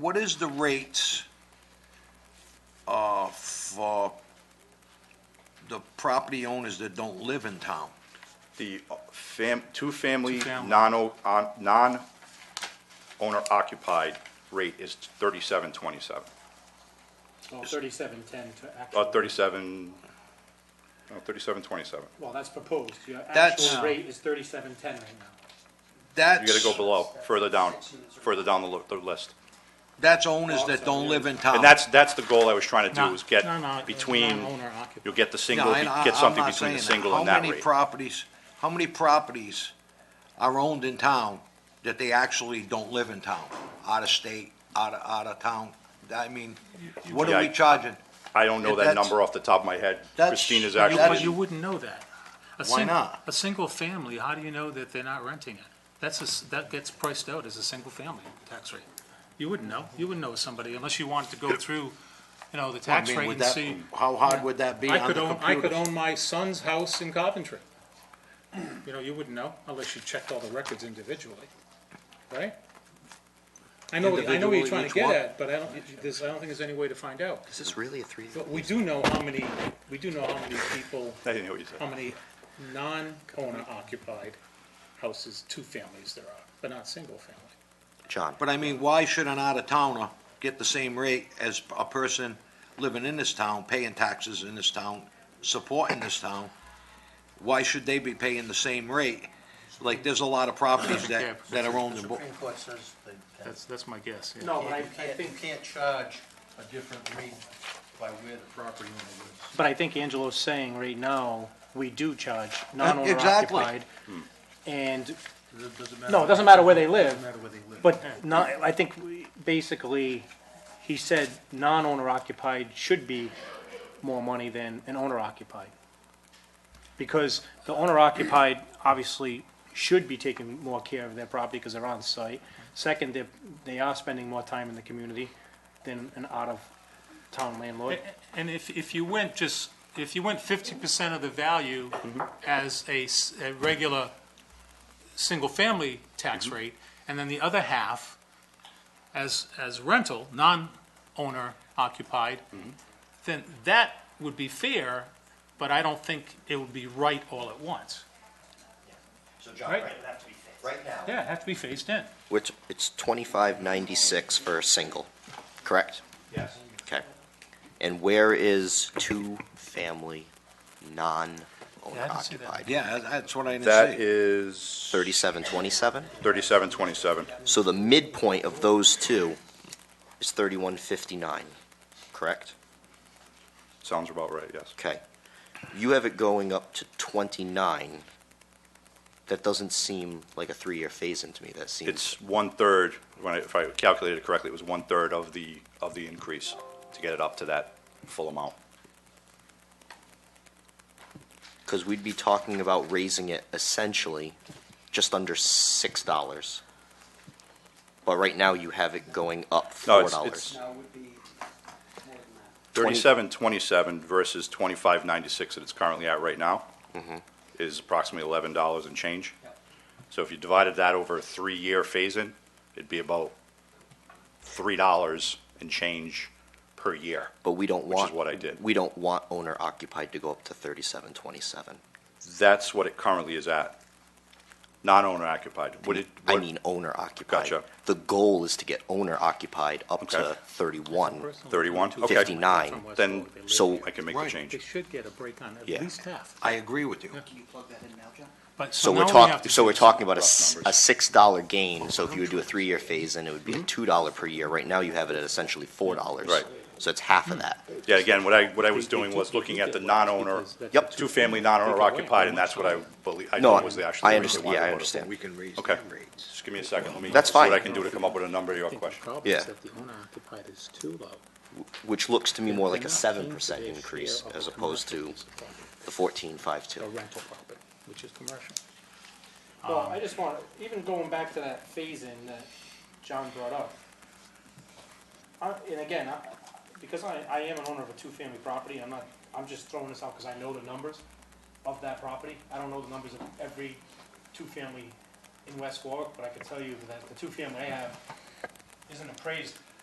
what is the rates uh, for the property owners that don't live in town? The uh, fam, two-family, Two-family. non-o- on- non-owner occupied rate is thirty-seven twenty-seven, Well, thirty-seven ten to uh, actual, thirty-seven, no, thirty-seven twenty-seven. well, that's proposed, your That's- actual rate is thirty-seven ten right now. You gotta That's, go below, further down, further down the, lo- the list. that's owners that don't live in town. And that's, that's the goal I was trying to do, No, was get no, no, it's between, non-owner occupied. you'll get the Yeah, single, and I- get I'm something not between the saying single and that How many rate. properties, how many properties are owned in town that they actually don't live in town? Out of state, out of, out of town? I mean, what Yeah, are I- we charging? I don't know that That's- number off the top of my head. That's- Christina's you- You wou- actually, You wouldn't know that. A Why sing- not? A single family, how do you know that they're not renting it? That's, a s- that gets priced out as a single family tax rate. You wouldn't know. You wouldn't know somebody unless you wanted to go through, you know, the I tax mean, rate would and that, see. how hard would that be I on the could own, computer? I could own my son's house in Coventry. You know, you wouldn't know unless you checked all the records individually, right? I know, I know what you're Individually, trying which to get one? at, but I don't, there's, I don't think there's any way to find out. Is this really a three? But we do know how many, we do know how many people I didn't hear what you how said. many non-owner occupied houses, two families there are, but not single family. John, But I mean, why should an out-of-towner get the same rate as a person living in this town, paying taxes in this town, supporting this town? Why should they be paying the same rate? Like, there's a lot of properties Yeah. that, that are owned The in, Bo- Supreme Court says they can. That's, that's my guess, yeah. No, but I, You I can't, you think, can't charge a different rate by where the property owner lives. but I think Angelo's saying right now, we do charge non-owner non-owner exactly. occupied. occupied, And It doesn't matter. No, it doesn't matter where they live, Doesn't matter where they live. But not, I think we- basically, he said non-owner occupied should be more money than an owner occupied. Because the owner occupied obviously should be taking more care of their property because they're on site. Second, they, they are spending more time in the community than an out-of-town landlord. And if, if you went just, if you went fifty percent of the value Mm-hmm. as a, s- a regular single-family Mm-hmm. tax rate, and then the other half as, as rental, non-owner occupied, Mm-hmm. then that would be fair, but I don't think it would be right all at once. So John, Right. right, it'd have to be fixed. Right now, Yeah, it'd have to be phased in. which, it's twenty-five ninety-six for a single, correct? yes. Okay. And where is two-family, non-owner Yeah, I didn't see that. occupied? yeah, that's what I didn't That say. is Thirty-seven twenty-seven? thirty-seven twenty-seven. So the midpoint of those two is thirty-one fifty-nine, correct? Sounds about right, yes. Okay. You have it going up to twenty-nine. That doesn't seem like a three-year phase-in to me, that seems. It's one-third, when I, if I calculated it correctly, it was one-third of the, of the increase to get it up to that full amount. because we'd be talking about raising it essentially just under six dollars. But right now you have it going up No, four it's, dollars. it's. Thirty-seven twenty-seven versus twenty-five ninety-six that it's currently at right now is approximately eleven dollars and change. So if you divided that over a three-year phase-in, it'd be about three dollars and change per year. But we don't Which want. is what I did. We don't want owner occupied to go up to thirty-seven twenty-seven. That's what it currently is at, non-owner occupied. Would it? I would- mean owner occupied. Gotcha. The goal is to get owner occupied up to Okay. thirty-one. 31? Okay. Fifty-nine. Then- So I can make the Right. change. They should get a break on at Yeah. least half. I agree with you. But So now we're we have talking, to so we're choose. talking about a, rough s- a numbers. six dollar gain, so if you would do a Mm-hmm. three-year phase, then it would be a two dollar per year. Right now you have it at essentially four dollars. Right. So it's half of that. Yeah, again, what I, what I was They- they doing took- was looking they at did the what? non-owner, Because that's Yep. the two-family Take non-owner away occupied, how and much that's what I time. believe, I No, thought was the I- actual I rate they understand- wanted yeah, I to go to. understand. We can raise Okay. them rates. Just give me a second, let me. That's see what fine. I can do to come up with a number to your I think the question. problem Yeah. is that the owner occupied is too low. which looks to me more like They're a not seven paying for percent their increase share of as a opposed to commercial piece of property, the fourteen five two. A rental property, which is commercial. Well, I just want, even going back to that phase-in that John brought up. I, and again, I, because I, I am an owner of a two-family property, I'm not, I'm just throwing this out because I know the numbers of that property. I don't know the numbers of every two-family in West Warwick, but I can tell you that the two-family I have isn't appraised